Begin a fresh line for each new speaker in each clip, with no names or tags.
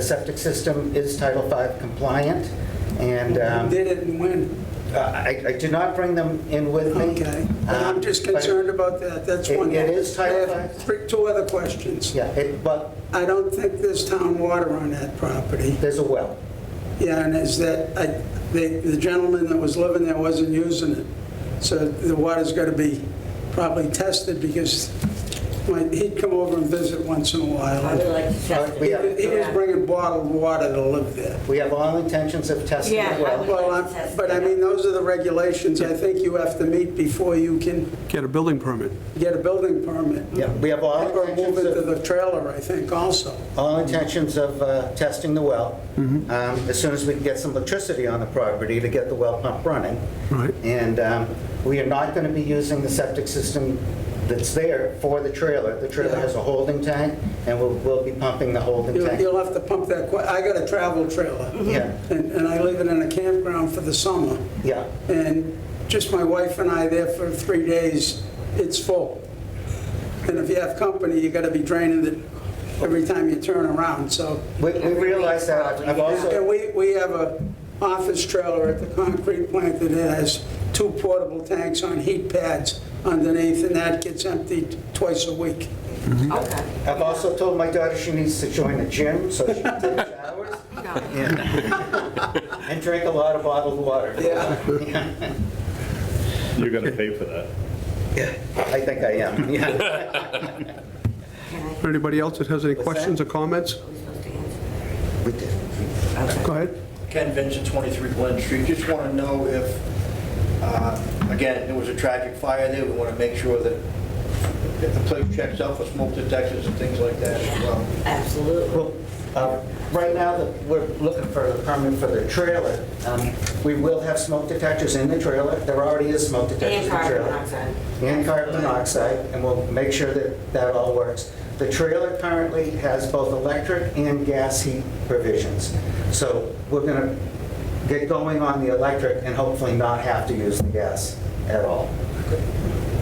The septic system is Title V compliant, and
You
um,
Did it and when?
uh, I I did not bring them in with me.
Okay. I'm just
Um, but-
concerned about that, that's
It-
one.
it is Title
I have
V.
three- Two other questions.
Yeah, it- but
I don't think there's town water on that property.
there's a well.
Yeah, and is that, I- the the gentleman that was living there wasn't using it. So the water's got to be probably tested because when, he'd come over and visit once in a
I would
while.
like to
Uh,
test
we
He
have-
it.
he was
Yeah.
bringing bottled water to live there.
We have all intentions of testing
Yeah,
the
I
well.
would-
Well, I- but I mean, those are the regulations I think you have to meet before you can
Get a building permit.
get a building permit.
Yeah, we have all
Or move
intentions
it to
of,
the trailer, I think, also.
all intentions of uh, testing the well, um, as soon as we can get some electricity on the property to get the well pump running.
Right.
And um, we are not going to be using the septic system that's there for the trailer. The trailer
Yeah.
has a holding tank, and we'll, we'll be pumping the holding
You'll
tank.
you'll have to pump that, que- I got a travel trailer.
Mm-hmm. Yeah.
And and I live in a campground for the summer.
Yeah.
And just my wife and I there for three days, it's full. And if you have company, you gotta be draining it every time you turn around, so.
We we realize that. I've
And
also,
we, we have a office trailer at the concrete plant that has two portable tanks on heat pads underneath, and that gets emptied twice a week.
Okay.
I've also told my daughter she needs to join a gym, so she can take showers
No.
and drink a lot of bottled water.
Yeah.
You're gonna pay for that.
I think I am, yeah.
Anybody else that has any questions or comments?
We're supposed to answer.
We did.
Go ahead.
Ken Vincent, 23 Glen Street. Just want to know if, uh, again, there was a tragic fire there, we want to make sure that that the place checks out for smoke detectors and things like that as well.
Absolutely.
Well, uh, Right now, the- we're looking for a permit for the trailer. Um, We will have smoke detectors in the trailer. There already is smoke detectors in
And
the
carbon
trailer.
monoxide.
And carbon monoxide, and we'll make sure that that all works. The trailer currently has both electric and gas heat provisions. So we're going to get going on the electric and hopefully not have to use the gas at all.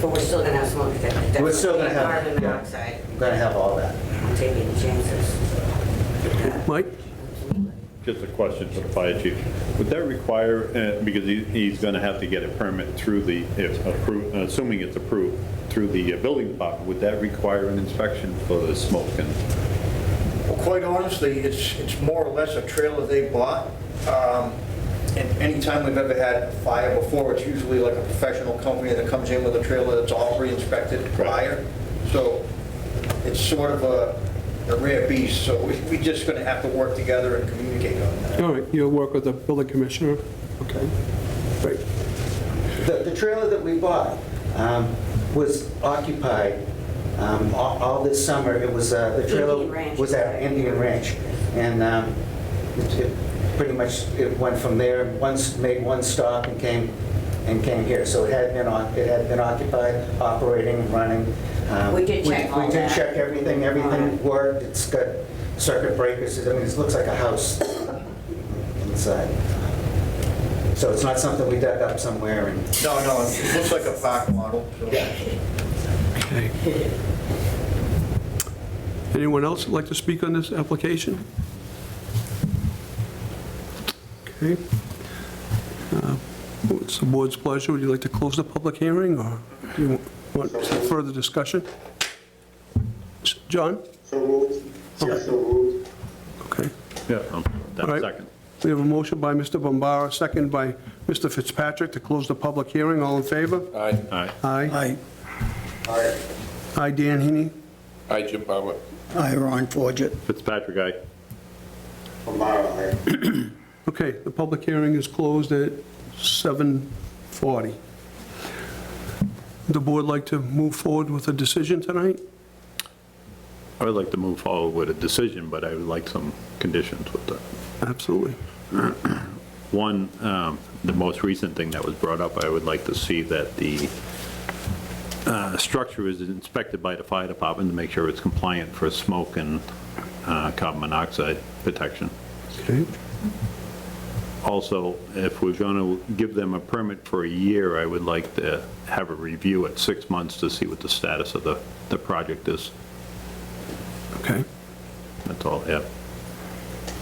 But we're still gonna have smoke detectors.
We're still going to have...
Carbon monoxide.
We're going to have all that.
I'm taking chances.
Mike?
Just a question for the fire chief. Would that require, uh, because he- he's going to have to get a permit through the, if approved, assuming it's approved, through the uh, building department, would that require an inspection for the smoke and?
Well, quite honestly, it's, it's more or less a trailer they bought. Um, And anytime we've ever had a fire before, it's usually like a professional company that comes in with a trailer that's all re-inspected prior. So it's sort of a a rare beast, so we- we're just going to have to work together and communicate on that.
All right, you'll work with the building commissioner. Okay, great.
The, the trailer that we bought um, was occupied um, all, all this summer. It was, uh, the trailer
Indian Ranch.
was at Indian Ranch. And um, it, it pretty much, it went from there, once, made one stop and came, and came here. So it had been on, it had been occupied, operating, running. Um,
We did check all
We did
that.
check everything, everything worked. It's got circuit breakers, I mean, it looks like a house inside. So it's not something we dug up somewhere and
No, no, it looks like a park model. so-
Okay. Anyone else would like to speak on this application? Okay. Uh, It's the board's pleasure. Would you like to close the public hearing, or do you want further discussion? S- John?
So moved. Yeah, so moved.
Okay.
Yeah.
All right.
second.
We have a motion by Mr. Bombara, second by Mr. Fitzpatrick to close the public hearing. All in favor?
Aye.
All right.
Aye.
Aye,
Aye, Dan Heaney.
Aye, Jim Palmer.
aye, Ron Forget.
Fitzpatrick, aye.
Kamara, aye.
Okay, the public hearing is closed at 7:40. The board like to move forward with a decision tonight?
I would like to move forward with a decision, but I would like some conditions with that.
Absolutely.
One, um, the most recent thing that was brought up, I would like to see that the uh, structure is inspected by the fire department to make sure it's compliant for smoke and uh, carbon monoxide protection.
Okay.
Also, if we're going to give them a permit for a year, I would like to have a review at six months to see what the status of the, the project is.
Okay.
That's all, yeah.